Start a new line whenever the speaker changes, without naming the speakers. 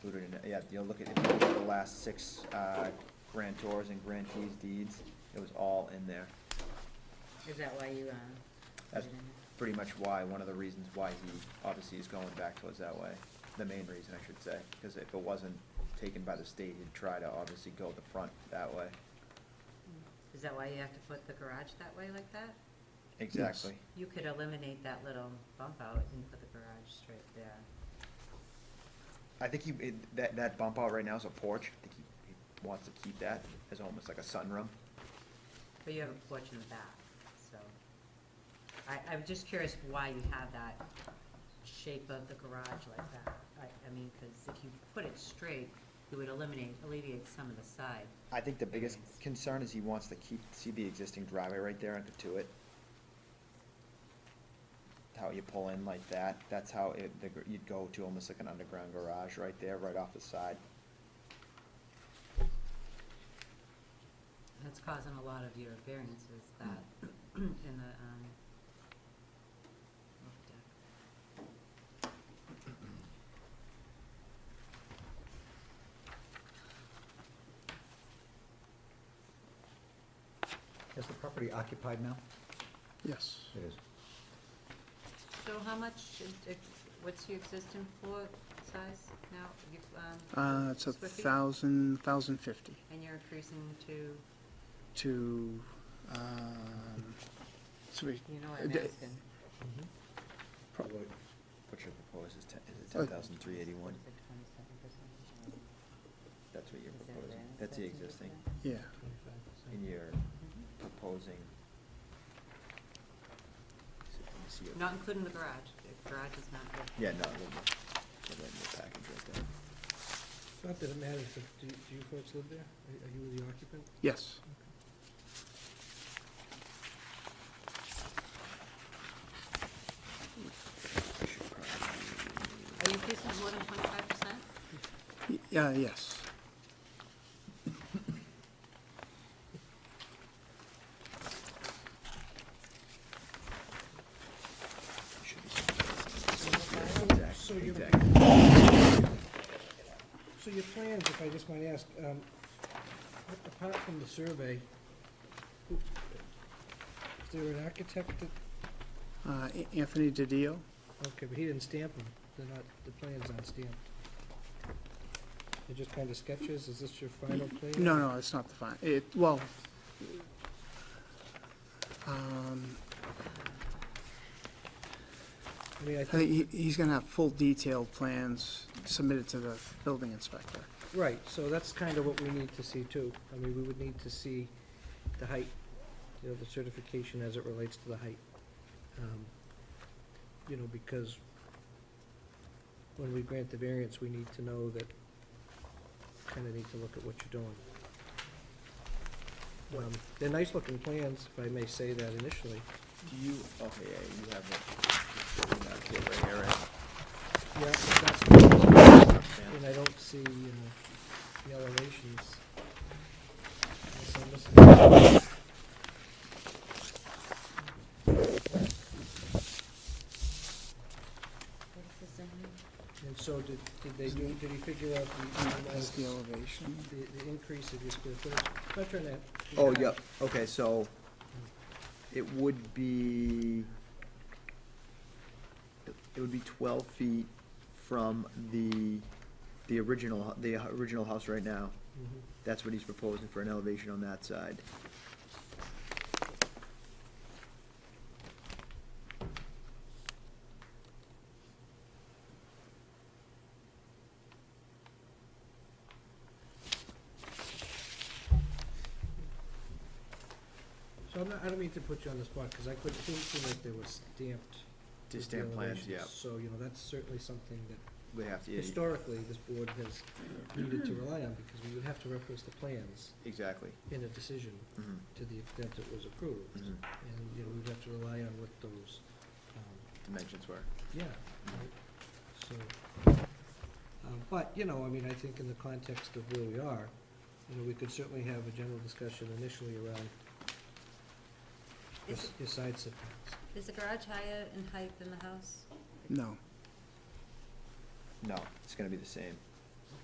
included in it, yeah, you'll look at, if you look at the last six, uh, grantors and grantees deeds, it was all in there.
Is that why you, uh?
That's
put it
pretty
in
much why, one of the reasons why he obviously is going back towards that way, the main reason I should say, because if it wasn't taken by the state, he'd try to obviously go the front that way.
there? Is that why you have to put the garage that way like that?
Exactly.
You could eliminate that little bump out and put the garage straight there.
I think he, it- that, that bump out right now is a porch, I think he, he wants to keep that as almost like a sunroom.
But you have a porch in the back, so. I, I'm just curious why you have that shape of the garage like that. I, I mean, because if you put it straight, you would eliminate, alleviate some of the side.
I think the biggest concern is he wants to keep, see the existing driveway right there and to it. How you pull in like that, that's how it, the gr- you'd go to almost like an underground garage right there, right off the side.
That's causing a lot of your variances that in the, um, roof deck.
Is the property occupied now?
Yes.
It is.
So how much, is- ex- what's your existing floor size now? You- um,
Uh, it's a
square feet?
thousand, thousand fifty
And you're increasing to,
to, um, so we,
you know what
Uh,
I'm
d-
asking?
What you propose is ten, is it ten thousand three eighty-one?
Is it 27%?
That's what you're
Is that
proposing,
variance
that's the
that's in
existing,
there?
yeah,
and you're
Mhm.
proposing. so let me see it.
Not including the garage. The garage is not good.
Yeah, no, it wouldn't, it wouldn't be a package right there.
Not that it matters, but do, do you folks live there? Are are you the occupant?
yes.
I should probably-
Are you increasing more than twenty-five percent?
Y- Yeah, yes.
it should be something like this.
So
Exact-
you're-
exact.
So your plans, if I just might ask, um, a- apart from the survey, who- is there an architect that,
Uh, A- Anthony DiDio,
okay, but he didn't stamp them, they're not, the plan's aren't stamped. They're just kind of sketches, is this your final plan?
no, no, it's not the fine, it, well, um,
I mean, I
I
think,
think he, he's gonna have full detailed plans submitted to the building inspector.
right, so that's kind of what we need to see too. I mean, we would need to see the height, you know, the certification as it relates to the height. Um, You know, because when we grant the variance, we need to know that, kind of need to look at what you're doing. Um, They're nice-looking plans, if I may say that initially.
Do you, okay, yeah, you have it, you have it right here, right?
Yeah, that's, and I don't see, uh, the elevations. Unless I'm missing-
What's the zoning?
And so did, did they do, did he figure out the,
Uh,
the,
Is the
amount-
elevation,
the- the increase of your square footage? Not trying to.
Oh, yep, okay, so it would be, it would be twelve feet from the, the original, hu- the original house right now.
Mhm.
That's what he's proposing for an elevation on that side.
So I'm not, I don't mean to put you on the spot, because I couldn't, didn't seem like they were stamped. with the elevations. So, you know, that's certainly something that
They have to, yeah,
historically this board has needed to rely on, because we would have to reference the plans
exactly.
in a decision
Mhm,
to the extent it was approved.
mhm.
And, you know, we'd have to rely on what those, um,
Dimensions were.
yeah, So, um, but, you know, I mean, I think in the context of where we are, you know, we could certainly have a general discussion initially around your
Is,
s- your side setbacks.
is the garage higher in height than the house?
no,
No, it's gonna be the same.